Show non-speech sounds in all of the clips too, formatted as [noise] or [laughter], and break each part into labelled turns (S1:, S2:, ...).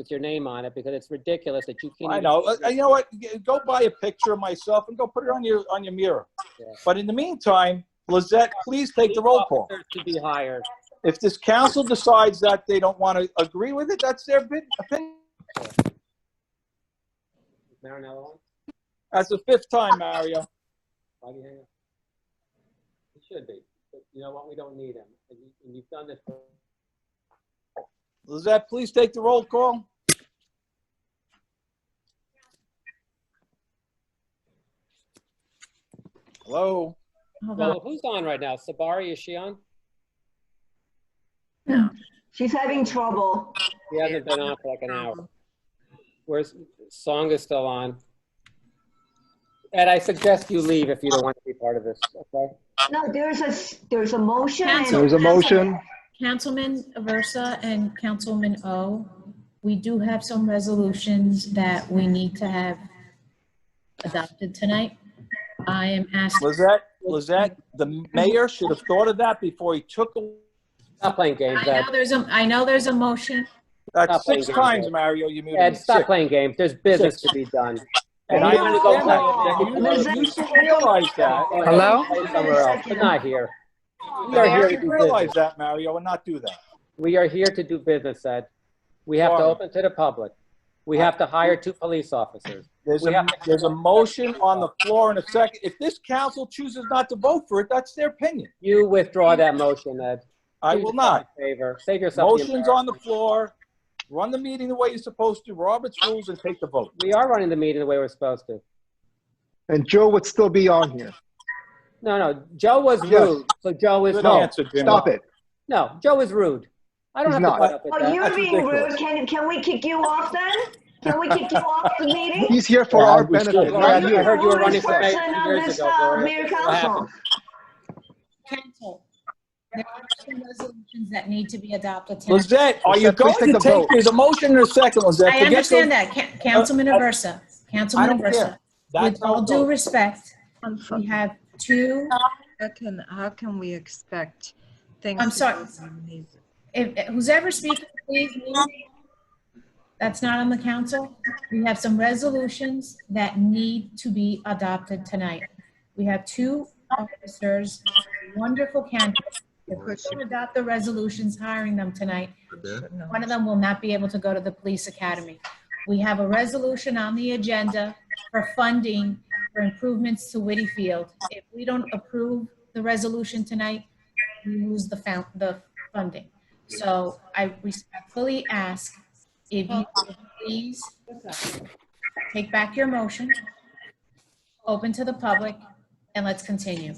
S1: with your name on it because it's ridiculous that you can't.
S2: I
S1: even-
S2: know. Uh, You know what? G- Go buy a picture of myself and go put it on your on your mirror.
S1: Yeah.
S2: But in the meantime, Lizette, please take the roll call.
S1: Officers Should be hired.
S2: If this council decides that they don't want to agree with it, that's their bid- opinion.
S1: Marinello on?
S2: That's the fifth time, Mario.
S1: Why do you hang up? He should be. But you know what? We don't need him. And you- and you've done this for
S2: Lizette, please take the roll call. Hello?
S3: Hold on.
S1: Well, who's on right now? Sabari, is she on?
S4: She's having trouble.
S1: He hasn't been on for like an
S3: Um,
S1: hour. Where's, Song is still on. Ed, I suggest you leave if you don't want to be part of this, okay?
S4: No, there's a, s- there's a motion. and-
S3: Cancel.
S5: There's a motion.
S3: Councilman Aversa and Councilman O, we do have some resolutions that we need to have adopted tonight. I am asking,
S2: Lizette, Lizette, the mayor should have thought of that before he took, a-
S1: Stop playing games,
S3: I
S1: Ed.
S3: know there's a, I know there's a motion.
S2: that's
S1: Stop playing
S2: six
S1: games,
S2: times,
S1: Ed.
S2: Mario, you muted me.
S1: Ed, stop
S2: Six.
S1: playing games. There's business to be done.
S2: And I
S1: You wanna go
S2: understand
S4: play-
S2: that. You- You should realize that.
S6: Hello?
S1: Play somewhere else, but not here. We are
S2: You
S1: here to
S2: should
S1: do
S2: realize
S1: business.
S2: that, Mario, and not do that.
S1: We are here to do business, Ed. We have to
S2: Sorry.
S1: open to the public. We have to hire two police officers.
S2: There's
S1: We
S2: a,
S1: have to-
S2: there's a motion on the floor in a second. If this council chooses not to vote for it, that's their opinion.
S1: You withdraw that motion, Ed.
S2: I
S1: Do
S2: will
S1: yourself
S2: not.
S1: a Favor, save yourself. the
S2: Motion's on the floor. Run the meeting the way you're supposed to, Robert's rules, and take the vote.
S1: embarrassment. We are running the meeting the way we're supposed to.
S5: And Joe would still be on here.
S1: No, no, Joe was
S5: Yes.
S1: rude, so Joe is
S2: Good
S1: wrong.
S2: answer, Jim.
S5: Stop it.
S1: No, Joe is rude. I don't
S5: He's
S1: have to
S5: not.
S1: put up with
S4: Oh,
S1: that.
S4: you're
S2: That's
S4: being
S2: ridiculous.
S4: rude. Can, can we kick you off then? Can we kick you off
S1: [laughs]
S4: the meeting?
S5: He's here for
S2: Yeah,
S5: our
S2: we should.
S1: Gloria,
S5: benefit, not
S4: You're
S1: I
S4: the
S5: you.
S1: heard you were running
S4: rudest
S1: for mayor
S4: person
S1: two
S4: on
S1: years
S4: this,
S1: ago,
S4: uh,
S1: Gloria.
S4: mayor
S1: What happened?
S4: council.
S3: Council, there are some resolutions that need to be adopted tonight.
S2: Lizette, are you
S5: Lizette,
S2: going
S5: please
S2: to
S5: take the
S2: take,
S5: vote.
S2: there's a motion in a second, Lizette.
S3: I
S2: Forget the-
S3: understand that, Ca- Councilman
S2: Uh, I-
S3: Aversa,
S2: I
S3: Councilman
S2: don't
S3: Aversa.
S2: care.
S3: With
S2: That's how
S3: all
S2: it
S3: due
S2: goes.
S3: respect, we have two
S7: How can, how can we expect things?
S3: I'm
S7: to
S3: sorry.
S7: go on these-
S3: If, who's ever speaking, please, leave. that's not on the council. We have some resolutions that need to be adopted tonight. We have two officers, wonderful candidates. If we don't adopt the resolutions hiring them tonight,
S7: no.
S3: one of them will not be able to go to the police academy. We have a resolution on the agenda for funding for improvements to Whitty Field. If we don't approve the resolution tonight, we lose the found, the funding. So I respectfully ask if you would please take back your motion, open to the public, and let's continue.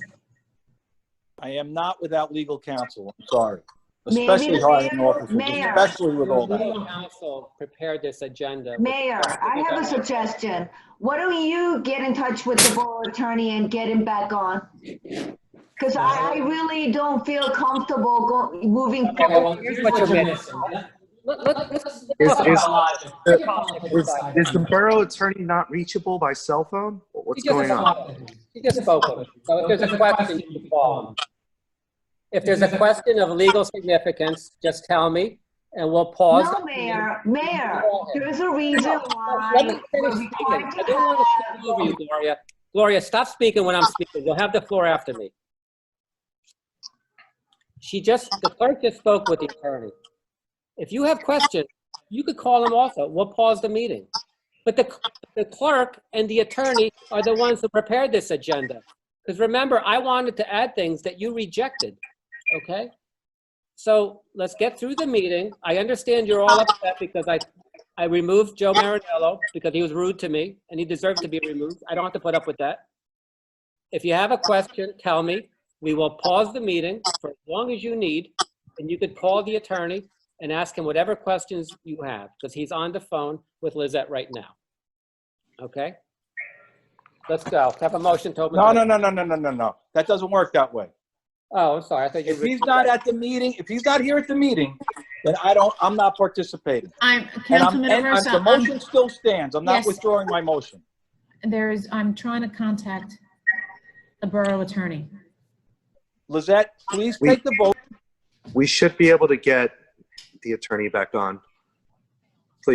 S2: I am not without legal counsel, I'm sorry.
S4: Maybe
S2: Especially
S4: the
S2: hiring
S4: mayor-
S2: officers,
S4: mayor.
S2: especially with all
S1: Your
S2: that.
S1: legal counsel prepared this agenda.
S4: Mayor, I have a suggestion. Why don't you get in touch with the borough attorney and get him back on? Because I, I really don't feel comfortable go, moving
S1: Okay, well,
S4: forward.
S1: here's what you're missing. Let- let- let's- let's
S5: Is-
S1: talk
S5: is-
S1: about logic. Let's talk about logic.
S5: Is, is the borough attorney not reachable by cell phone? What's
S1: He just
S5: going on?
S1: spoke. He just spoke. with it. So if there's a question, you can call him. If there's a question of legal significance, just tell me, and we'll pause.
S4: No, Mayor, Mayor, there is a reason why.
S1: Let me
S4: we're
S1: finish speaking.
S4: required
S1: I
S4: to
S1: don't want to
S4: have-
S1: speak over you, Gloria. Gloria, stop speaking when I'm speaking. You'll have the floor after me. She just, the clerk just spoke with the attorney. If you have questions, you could call him also. We'll pause the meeting. But the, the clerk and the attorney are the ones who prepared this agenda. Because remember, I wanted to add things that you rejected, okay? So let's get through the meeting. I understand you're all upset because I, I removed Joe Marinello because he was rude to me and he deserved to be removed. I don't have to put up with that. If you have a question, tell me. We will pause the meeting for as long as you need and you could call the attorney and ask him whatever questions you have because he's on the phone with Lizette right now. Okay? Let's go. Have a motion to open.
S2: No,
S1: the-
S2: no, no, no, no, no, no, no. That doesn't work that way.
S1: Oh, I'm sorry. I thought you.
S2: If he's not at the meeting, if he's not here at the meeting, then I don't, I'm not participating.
S3: I'm,
S2: And I'm,
S3: Councilman
S2: and I'm- the
S3: Aversa,
S2: motion still stands. I'm not
S3: Yes.
S2: withdrawing my motion.
S3: I'm- there is, I'm trying to contact the borough attorney.
S2: Lizette, please
S5: We-
S2: take the vote.
S5: We should be able to get the attorney back on.